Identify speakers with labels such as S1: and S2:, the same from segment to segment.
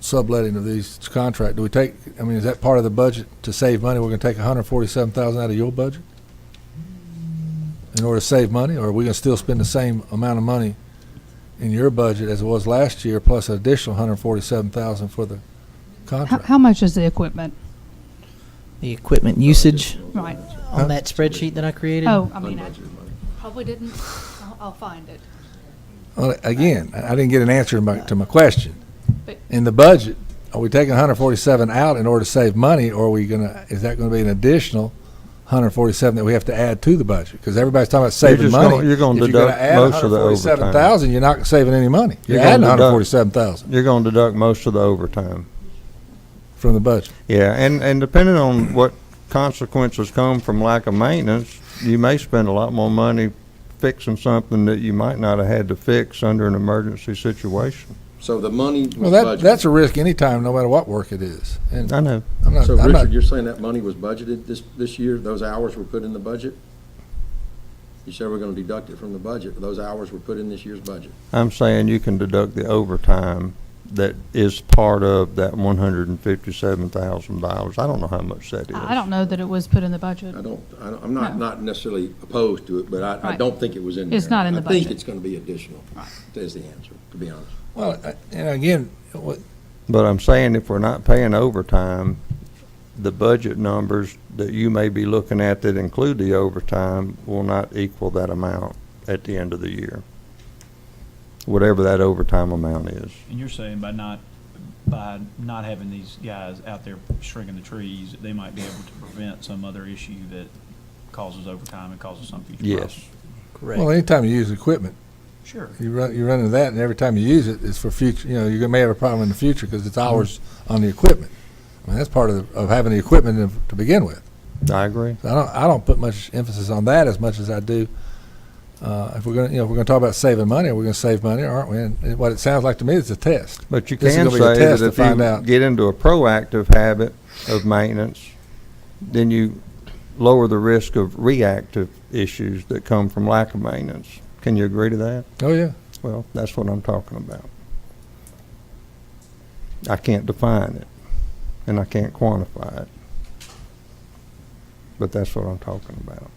S1: subletting of these contract, do we take, I mean, is that part of the budget to save money? We're gonna take hundred and forty-seven thousand out of your budget? In order to save money, or are we gonna still spend the same amount of money in your budget as it was last year, plus an additional hundred and forty-seven thousand for the
S2: How,
S1: contract?
S2: how much is the equipment?
S3: The equipment usage
S2: Right.
S1: Huh?
S3: on that spreadsheet that I created?
S2: Oh, I mean, I probably didn't. I'll, I'll find it.
S1: Well, Again, I I didn't get an answer to my, to my question.
S2: But-
S1: In the budget, are we taking hundred forty-seven out in order to save money, or are we gonna, is that gonna be an additional hundred forty-seven that we have to add to the budget? Because everybody's talking about saving
S4: just gonna-
S1: money.
S4: you're gonna
S1: If
S4: deduct
S1: add
S4: most of the overtime.
S1: 147,000, You're not saving any money. You're
S4: You're gonna
S1: adding
S4: deduct-
S1: hundred forty-seven thousand
S4: You're going to deduct most of the overtime.
S1: from the budget.
S4: Yeah, and, and depending on what consequences come from lack of maintenance, you may spend a lot more money fixing something that you might not have had to fix under an emergency situation.
S5: So the money was
S1: Well, that,
S5: budgeted.
S1: that's a risk anytime, no matter what work it is. And
S4: I know.
S1: I'm not,
S5: So
S1: I'm not,
S5: Richard, you're saying that money was budgeted this, this year? Those hours were put in the budget? You said we're gonna deduct it from the budget. Those hours were put in this year's budget.
S4: I'm saying you can deduct the overtime that is part of that one hundred and fifty-seven thousand dollars. I don't know how much that is.
S2: I I don't know that it was put in the budget.
S5: I don't, I don't- I'm not,
S2: No.
S5: not necessarily opposed to it, but I, I
S2: Right.
S5: don't think it was in there.
S2: It's not in the
S5: I think
S2: budget.
S5: it's gonna be additional, is the answer, to be honest.
S1: well, I- and again, what-
S4: But I'm saying if we're not paying overtime, the budget numbers that you may be looking at that include the overtime will not equal that amount at the end of the year. Whatever that overtime amount is.
S6: And you're saying by not, by not having these guys out there shrinking the trees, they might be able to prevent some other issue that causes overtime and causes some future problem?
S4: Yes.
S1: well, anytime you use equipment,
S6: Sure.
S1: you run, you run into that, and every time you use it, it's for future, you know, you may have a problem in the future because it's hours on the equipment. I mean, that's part of, the- of having the equipment to- to begin with.
S4: I agree.
S1: So I don't, I don't put much emphasis on that as much as I do. Uh, if we're gonna, you know, if we're gonna talk about saving money, we're gonna save money, aren't we? And it- what it sounds like to me is a test.
S4: But you
S1: This is
S4: can
S1: gonna be a
S4: say
S1: test
S4: that
S1: to
S4: if
S1: find out.
S4: you get into a proactive habit of maintenance, then you lower the risk of reactive issues that come from lack of maintenance. Can you agree to that?
S1: Oh, yeah.
S4: Well, that's what I'm talking about. I can't define it, and I can't quantify it. But that's what I'm talking about.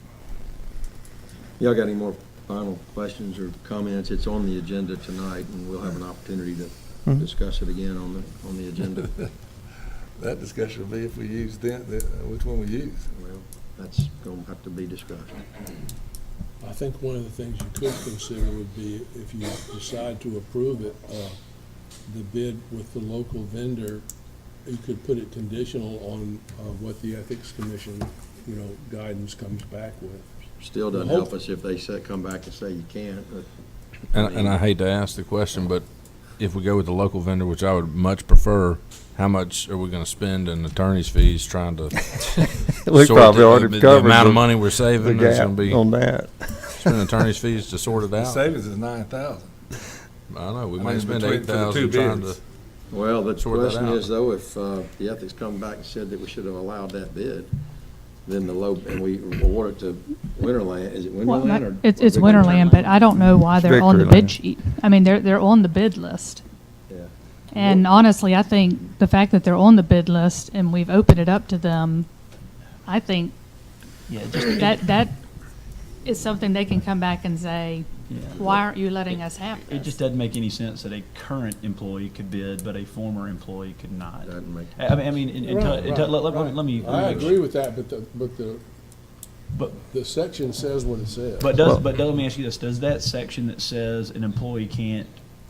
S5: Y'all got any more final questions or comments? It's on the agenda tonight, and we'll have an opportunity to
S1: Mm-hmm.
S4: Mhm.
S5: discuss it again on the, on the agenda.
S1: That discussion will be if we use that, uh, which one we use.
S5: Well, that's gonna have to be discussed.
S7: I think one of the things you could consider would be if you decide to approve it, uh, the bid with the local vendor, you could put it conditional on, uh, what the Ethics Commission, you know, guidance comes back with.
S5: Still doesn't help us if they say, come back and say you can't, but
S8: And, and I hate to ask the question, but if we go with the local vendor, which I would much prefer, how much are we gonna spend in attorney's fees trying to?
S4: We
S8: sort
S4: probably
S8: the-
S4: already
S8: the-
S4: covered
S8: The amount
S4: the-
S8: of money we're
S4: The
S8: saving is
S4: gap
S8: gonna be,
S4: on that.
S8: spending attorney's fees to sort it
S1: The
S8: out. I
S1: savings is nine thousand.
S8: don't know, we
S1: I
S8: might
S1: mean,
S8: spend
S1: between-
S8: eight
S1: for the two
S8: thousand trying to,
S1: bids.
S5: Well, the
S8: Sort that
S5: question
S8: out.
S5: is though, if uh, the ethics come back and said that we should have allowed that bid, then the low, and we award it to Winterland, is it
S2: Well,
S5: Winterland or?
S2: It's,
S5: or
S2: it's
S5: Victory
S2: Winterland, but I don't know why
S4: It's
S2: they're on the
S4: Victory
S2: bid
S4: Land.
S2: sheet. I mean, they're, they're on the bid list.
S5: Yeah.
S2: And honestly, I think the fact that they're on the bid list and we've opened it up to them, I think
S3: Yeah,
S2: that, that is something they can come back and say,
S6: Yeah.
S2: why aren't you letting us have
S6: It just
S2: this?
S6: doesn't make any sense that a current employee could bid, but a former employee could not.
S5: Doesn't make-
S6: I I mean, I mean, it- it-
S7: Right,
S6: it-
S7: right,
S6: let, let- let me- let me.
S7: I agree with that, but the, but the,
S6: But-
S7: the section says what it says.
S6: But does,
S4: Well-
S6: but let me ask you this, does that section that says an employee can't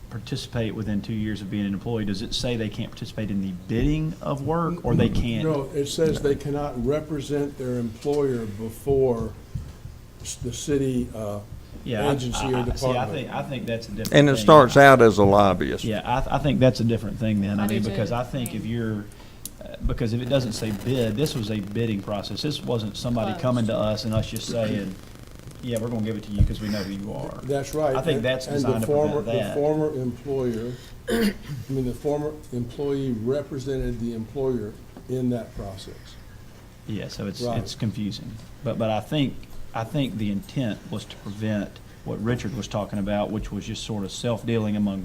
S6: participate within two years of being an employee, does it say they can't participate in the bidding of work, or they can't?
S7: No, it says they cannot represent their employer before s- the city, uh,
S6: Yeah, I-
S7: agency or
S6: I- I- See, I
S7: department.
S6: think, I think that's a different
S4: And it
S6: thing.
S4: starts out as a lobbyist.
S6: Yeah, I, I think that's a different thing then,
S2: I
S6: I
S2: do
S6: mean,
S2: too.
S6: because I think if you're, uh, because if it doesn't say bid, this was a bidding process, this wasn't somebody
S2: Closed.
S6: coming to us and us just saying, yeah, we're gonna give it to you because we know who you are.
S7: That's right.
S6: I think
S7: And-
S6: that's
S7: and the
S6: designed to
S7: former-
S6: prevent that.
S7: The former employer, I mean, the former employee represented the employer in that process.
S6: Yeah, so it's,
S7: Right.
S6: it's confusing. But, but I think, I think the intent was to prevent what Richard was talking about, which was just sort of self-dealing among